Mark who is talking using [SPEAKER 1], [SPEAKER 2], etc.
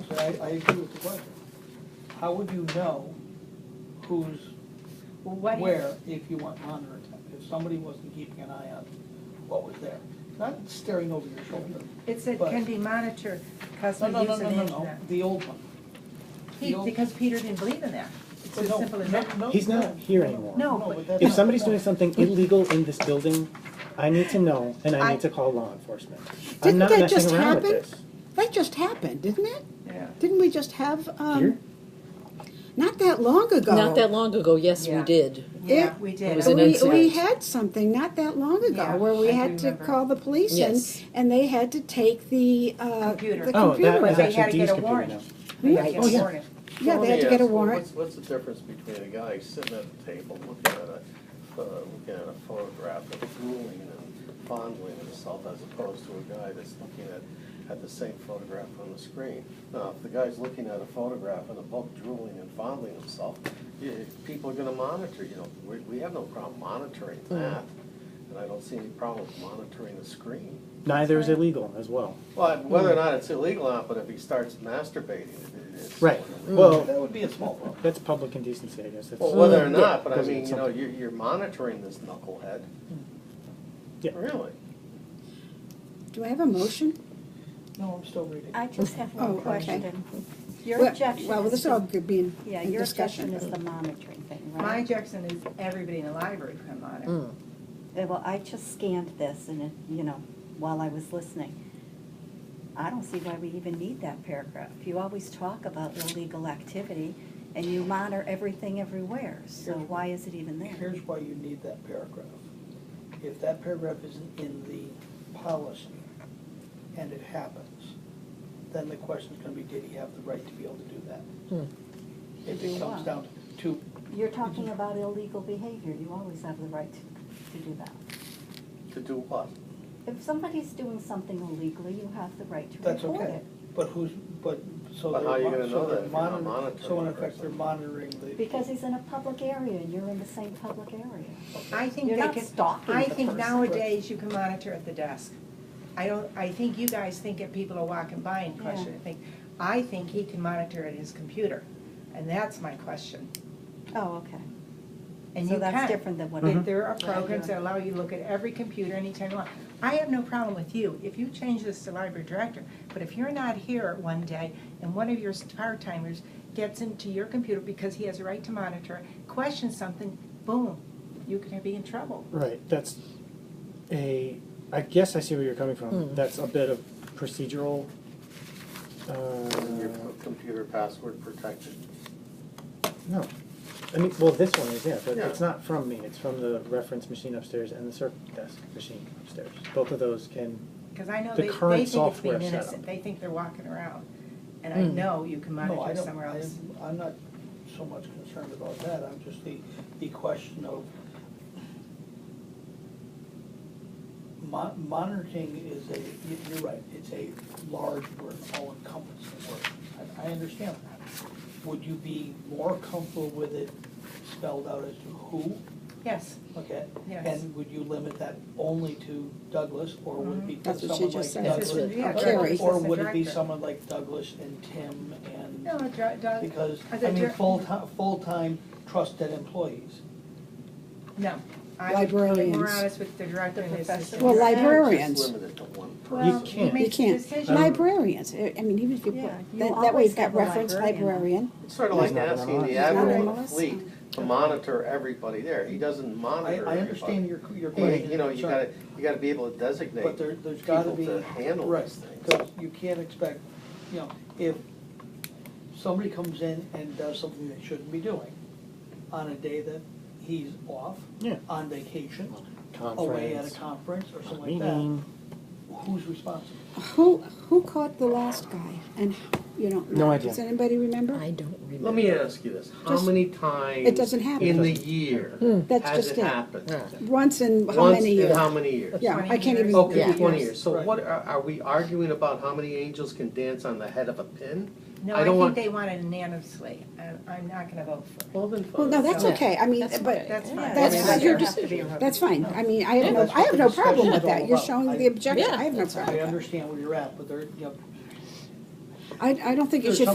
[SPEAKER 1] I, I agree with the question. How would you know who's
[SPEAKER 2] Well, what do you-
[SPEAKER 1] where if you weren't monitoring it? If somebody wasn't keeping an eye on what was there? Not staring over your shoulder.
[SPEAKER 2] It said
[SPEAKER 1] but-
[SPEAKER 2] can be monitored because
[SPEAKER 1] No,
[SPEAKER 2] we
[SPEAKER 1] no, no,
[SPEAKER 2] use
[SPEAKER 1] no,
[SPEAKER 2] an
[SPEAKER 1] no, no,
[SPEAKER 2] internet.
[SPEAKER 1] the old one.
[SPEAKER 2] He, because Peter didn't believe in that. It's as simple as that.
[SPEAKER 1] No,
[SPEAKER 3] He's not
[SPEAKER 1] no,
[SPEAKER 3] here
[SPEAKER 1] no,
[SPEAKER 3] anymore.
[SPEAKER 2] No,
[SPEAKER 1] no,
[SPEAKER 2] but-
[SPEAKER 1] but that's
[SPEAKER 3] If
[SPEAKER 1] not-
[SPEAKER 3] somebody's
[SPEAKER 1] no.
[SPEAKER 3] doing something illegal in this building, I need to know, and I
[SPEAKER 4] I-
[SPEAKER 3] need to call law enforcement. I'm
[SPEAKER 4] Didn't
[SPEAKER 3] not
[SPEAKER 4] that
[SPEAKER 3] messing
[SPEAKER 4] just
[SPEAKER 3] around with
[SPEAKER 4] happen?
[SPEAKER 3] this.
[SPEAKER 4] That just happened, didn't it?
[SPEAKER 2] Yeah.
[SPEAKER 4] Didn't we just have,
[SPEAKER 3] Here? Oh,
[SPEAKER 4] um, not that long ago?
[SPEAKER 5] Not that long ago, yes, we
[SPEAKER 2] Yeah.
[SPEAKER 5] did.
[SPEAKER 2] Yeah, we did.
[SPEAKER 5] It was
[SPEAKER 2] I
[SPEAKER 5] an
[SPEAKER 4] We,
[SPEAKER 2] believe-
[SPEAKER 5] incident.
[SPEAKER 4] we had something not that long
[SPEAKER 2] Yeah,
[SPEAKER 4] ago where we
[SPEAKER 2] I
[SPEAKER 4] had
[SPEAKER 2] do
[SPEAKER 4] to
[SPEAKER 2] remember.
[SPEAKER 4] call the police in
[SPEAKER 5] Yes.
[SPEAKER 4] and they had to take the, uh,
[SPEAKER 2] Computer.
[SPEAKER 4] the
[SPEAKER 3] Oh, that was
[SPEAKER 4] computer
[SPEAKER 2] They
[SPEAKER 4] away.
[SPEAKER 2] had to
[SPEAKER 3] actually
[SPEAKER 2] get
[SPEAKER 3] Dee's
[SPEAKER 2] a
[SPEAKER 3] computer
[SPEAKER 2] warrant.
[SPEAKER 3] now.
[SPEAKER 2] They had to get
[SPEAKER 3] Oh,
[SPEAKER 2] a
[SPEAKER 3] yeah.
[SPEAKER 2] warrant.
[SPEAKER 4] Yeah, they had to get a
[SPEAKER 6] Yes, well,
[SPEAKER 4] warrant.
[SPEAKER 6] what's- What's the difference between a guy sitting at the table, looking at a, pho- looking at a photograph and drooling and fondling himself as opposed to a guy that's looking at, at the same photograph on the screen? Now, if the guy's looking at a photograph and the book drooling and fondling himself, y- people are gonna monitor, you know, we, we have no problem monitoring
[SPEAKER 4] Hmm.
[SPEAKER 6] that. And I don't see any problem with monitoring the screen.
[SPEAKER 3] Neither is illegal as well.
[SPEAKER 6] Well,
[SPEAKER 4] Hmm.
[SPEAKER 6] whether or not it's illegal or not, but if he starts masturbating, it is.
[SPEAKER 3] Right, well,
[SPEAKER 1] That would be a small problem.
[SPEAKER 3] that's public indecency, I guess. That's-
[SPEAKER 6] Well, whether or
[SPEAKER 3] Yeah,
[SPEAKER 6] not, but I
[SPEAKER 3] because
[SPEAKER 6] mean,
[SPEAKER 3] it's
[SPEAKER 6] you know,
[SPEAKER 3] something.
[SPEAKER 6] you're, you're monitoring this knucklehead.
[SPEAKER 3] Yeah.
[SPEAKER 6] Really?
[SPEAKER 4] Do I have a motion?
[SPEAKER 1] No, I'm still reading.
[SPEAKER 7] I just have
[SPEAKER 4] Oh,
[SPEAKER 7] one
[SPEAKER 4] okay.
[SPEAKER 7] question. Your
[SPEAKER 4] Well-
[SPEAKER 7] objection
[SPEAKER 4] Well,
[SPEAKER 7] is
[SPEAKER 4] this
[SPEAKER 7] the-
[SPEAKER 4] all could be in
[SPEAKER 7] Yeah,
[SPEAKER 4] in
[SPEAKER 7] your objection
[SPEAKER 4] discussion.
[SPEAKER 7] is the monitoring thing,
[SPEAKER 2] My
[SPEAKER 7] right?
[SPEAKER 2] objection is everybody in the library can monitor.
[SPEAKER 5] Mm.
[SPEAKER 7] Uh, Well, I just scanned this and, it- you know, while I was listening. I don't see why we even need that paragraph. You always talk about illegal activity and you monitor everything everywhere, so
[SPEAKER 1] Here's-
[SPEAKER 7] why is it even there?
[SPEAKER 1] Here's why you need that paragraph. If that paragraph isn't in the policy and it happens, then the question's gonna be, did he have the right to be able to do that? If
[SPEAKER 7] To
[SPEAKER 1] it
[SPEAKER 7] do
[SPEAKER 1] comes
[SPEAKER 7] what?
[SPEAKER 1] down to,
[SPEAKER 7] You're talking about illegal behavior, you always have the right to, to do that.
[SPEAKER 6] To do what?
[SPEAKER 7] If somebody's doing something illegally, you have the right to
[SPEAKER 1] that's
[SPEAKER 7] report
[SPEAKER 1] okay,
[SPEAKER 7] it.
[SPEAKER 1] but who's, but, so
[SPEAKER 6] But
[SPEAKER 1] they're.
[SPEAKER 6] how you
[SPEAKER 1] mon-
[SPEAKER 6] gonna
[SPEAKER 1] so
[SPEAKER 6] know that
[SPEAKER 1] they're
[SPEAKER 6] if you're
[SPEAKER 1] monitor-
[SPEAKER 6] not
[SPEAKER 1] So
[SPEAKER 6] monitoring
[SPEAKER 1] in
[SPEAKER 6] the
[SPEAKER 1] effect, they're
[SPEAKER 6] person?
[SPEAKER 1] monitoring the.
[SPEAKER 7] Because he's in a public area and you're in the same public area.
[SPEAKER 2] I think
[SPEAKER 7] You're
[SPEAKER 2] they
[SPEAKER 7] not
[SPEAKER 2] can,
[SPEAKER 7] stalking
[SPEAKER 2] I
[SPEAKER 7] the
[SPEAKER 2] think
[SPEAKER 7] person.
[SPEAKER 2] nowadays you can monitor at the desk. I don't, I think you guys think if people are walking by and
[SPEAKER 7] Yeah.
[SPEAKER 2] question and think, I think he can monitor at his computer. And that's my question.
[SPEAKER 7] Oh, okay.
[SPEAKER 2] And
[SPEAKER 7] So
[SPEAKER 2] you
[SPEAKER 7] that's
[SPEAKER 2] can.
[SPEAKER 7] different than what.
[SPEAKER 2] There-
[SPEAKER 3] Mm-hmm.
[SPEAKER 7] I-
[SPEAKER 2] There are
[SPEAKER 7] what I
[SPEAKER 2] programs
[SPEAKER 7] do.
[SPEAKER 2] that allow you to look at every computer anytime you want. I have no problem with you, if you change this to library director, but if you're not here one day and one of your part-timers gets into your computer because he has a right to monitor, it, questions something, boom, you could be in trouble.
[SPEAKER 3] Right, that's a, I guess I see where you're coming from.
[SPEAKER 4] Hmm.
[SPEAKER 5] Mm.
[SPEAKER 3] That's a bit of procedural,
[SPEAKER 6] Your
[SPEAKER 3] uh,
[SPEAKER 6] computer password protected?
[SPEAKER 3] No. I mean, well, this one is, yeah, but
[SPEAKER 6] Yeah.
[SPEAKER 3] it's not from me. It's from the reference machine upstairs and the circ desk machine upstairs. Both of those can,
[SPEAKER 2] Because I know
[SPEAKER 3] The
[SPEAKER 2] they,
[SPEAKER 3] current
[SPEAKER 2] they think it's
[SPEAKER 3] software
[SPEAKER 2] being innocent,
[SPEAKER 3] setup.
[SPEAKER 2] they think they're walking around. And I
[SPEAKER 5] Mm.
[SPEAKER 2] know you can
[SPEAKER 1] No, I
[SPEAKER 2] monitor
[SPEAKER 1] don't-
[SPEAKER 2] somewhere
[SPEAKER 1] I-
[SPEAKER 2] else.
[SPEAKER 1] I'm not so much concerned about that, I'm just the, the question of mon- monitoring is a, you- you're right, it's a large word, all encompassing word. I, I understand that. Would you be more comfortable with it spelled out as to who?
[SPEAKER 2] Yes,
[SPEAKER 1] Okay.
[SPEAKER 2] Yes.
[SPEAKER 1] And would you limit that only to Douglas, or would it be
[SPEAKER 4] Mm-hmm. That's what she
[SPEAKER 1] someone like
[SPEAKER 4] just said.
[SPEAKER 1] Douglas?
[SPEAKER 2] That's what- yeah,
[SPEAKER 1] or-
[SPEAKER 4] Carrie.
[SPEAKER 1] Or would it be
[SPEAKER 2] Director.
[SPEAKER 1] someone like Douglas and Tim and?
[SPEAKER 2] no, it dri- does-
[SPEAKER 1] Because,
[SPEAKER 2] I
[SPEAKER 1] I
[SPEAKER 2] said
[SPEAKER 1] mean,
[SPEAKER 2] dir-
[SPEAKER 1] full-time, full-time trusted employees.
[SPEAKER 2] no. I would be More
[SPEAKER 4] Librarians.
[SPEAKER 2] honest with the director and the assistant.
[SPEAKER 4] Well,
[SPEAKER 2] director.
[SPEAKER 6] It's
[SPEAKER 4] librarians,
[SPEAKER 6] limited to one
[SPEAKER 2] Well,
[SPEAKER 6] person.
[SPEAKER 3] You
[SPEAKER 2] he
[SPEAKER 3] can't.
[SPEAKER 4] you
[SPEAKER 2] makes the
[SPEAKER 4] can't,
[SPEAKER 3] Um,
[SPEAKER 2] decision.
[SPEAKER 4] librarians, I I mean, even if you
[SPEAKER 7] Yeah,
[SPEAKER 4] put, that,
[SPEAKER 7] you
[SPEAKER 4] that way
[SPEAKER 7] always
[SPEAKER 4] you've got
[SPEAKER 7] have a
[SPEAKER 4] reference librarian.
[SPEAKER 7] librarian.
[SPEAKER 6] It's sort of
[SPEAKER 3] He's
[SPEAKER 6] like
[SPEAKER 3] not on the
[SPEAKER 6] asking
[SPEAKER 3] list.
[SPEAKER 6] the
[SPEAKER 3] He's
[SPEAKER 4] not on
[SPEAKER 6] admiral
[SPEAKER 4] the
[SPEAKER 6] of the
[SPEAKER 4] list.
[SPEAKER 6] fleet to monitor everybody there. He doesn't
[SPEAKER 1] I,
[SPEAKER 6] monitor
[SPEAKER 1] I understand
[SPEAKER 6] everybody.
[SPEAKER 1] your, your
[SPEAKER 6] He-
[SPEAKER 1] question.
[SPEAKER 6] You know, you
[SPEAKER 1] sorry.
[SPEAKER 6] gotta, you gotta be able to designate
[SPEAKER 1] But there,
[SPEAKER 6] people
[SPEAKER 1] there's gotta be.
[SPEAKER 6] to handle
[SPEAKER 1] right,
[SPEAKER 6] these things.
[SPEAKER 1] 'cause you can't expect, you know, if somebody comes in and does something they shouldn't be doing on a day that he's off,
[SPEAKER 3] yeah,
[SPEAKER 1] on vacation, away at a conference
[SPEAKER 3] conference,
[SPEAKER 1] or something like that,
[SPEAKER 3] meeting.
[SPEAKER 1] who's responsible?
[SPEAKER 4] Who, who caught the last guy and, you know?
[SPEAKER 3] No idea.
[SPEAKER 4] Does anybody remember?
[SPEAKER 5] I don't remember.
[SPEAKER 6] Let me ask you this, how
[SPEAKER 4] Just-
[SPEAKER 6] many times?
[SPEAKER 4] It doesn't happen.
[SPEAKER 6] In the
[SPEAKER 3] Doesn't-
[SPEAKER 6] year
[SPEAKER 4] That's
[SPEAKER 6] has
[SPEAKER 4] just
[SPEAKER 6] it
[SPEAKER 4] it.
[SPEAKER 6] happened?
[SPEAKER 5] Yeah.
[SPEAKER 4] Once in how
[SPEAKER 6] Once
[SPEAKER 4] many
[SPEAKER 6] in
[SPEAKER 4] years?
[SPEAKER 6] how many years?
[SPEAKER 4] Yeah, I
[SPEAKER 2] 20
[SPEAKER 4] can't
[SPEAKER 2] years.
[SPEAKER 4] even.
[SPEAKER 6] Okay,
[SPEAKER 5] Yeah.
[SPEAKER 6] twenty years. So
[SPEAKER 1] Right.
[SPEAKER 6] what, are, are we arguing about how many angels can dance on the head of a pin?
[SPEAKER 2] No,
[SPEAKER 6] I
[SPEAKER 2] I
[SPEAKER 6] don't
[SPEAKER 2] think
[SPEAKER 6] want-
[SPEAKER 2] they want it unanimously, and I'm not gonna vote for it.
[SPEAKER 6] Well, then
[SPEAKER 4] Well, no, that's
[SPEAKER 2] Yeah.
[SPEAKER 4] okay, I mean,
[SPEAKER 5] That's
[SPEAKER 4] but,
[SPEAKER 5] okay.
[SPEAKER 2] That's fine.
[SPEAKER 4] That's
[SPEAKER 2] I mean,
[SPEAKER 4] fine.
[SPEAKER 2] there
[SPEAKER 4] Your
[SPEAKER 2] has to be a
[SPEAKER 4] that's
[SPEAKER 2] vote.
[SPEAKER 4] fine, I mean, I have
[SPEAKER 1] Yeah,
[SPEAKER 4] no,
[SPEAKER 1] that's
[SPEAKER 4] I
[SPEAKER 1] what
[SPEAKER 4] have
[SPEAKER 1] the
[SPEAKER 4] no problem
[SPEAKER 1] discussion's
[SPEAKER 4] with that,
[SPEAKER 1] all
[SPEAKER 4] you're
[SPEAKER 1] about. I-
[SPEAKER 4] showing the objection,
[SPEAKER 5] Yeah,
[SPEAKER 4] I have no
[SPEAKER 5] that's
[SPEAKER 4] problem
[SPEAKER 1] I
[SPEAKER 4] with that.
[SPEAKER 1] understand where you're at, but there, you know,
[SPEAKER 4] I, I don't think it
[SPEAKER 1] There's
[SPEAKER 4] should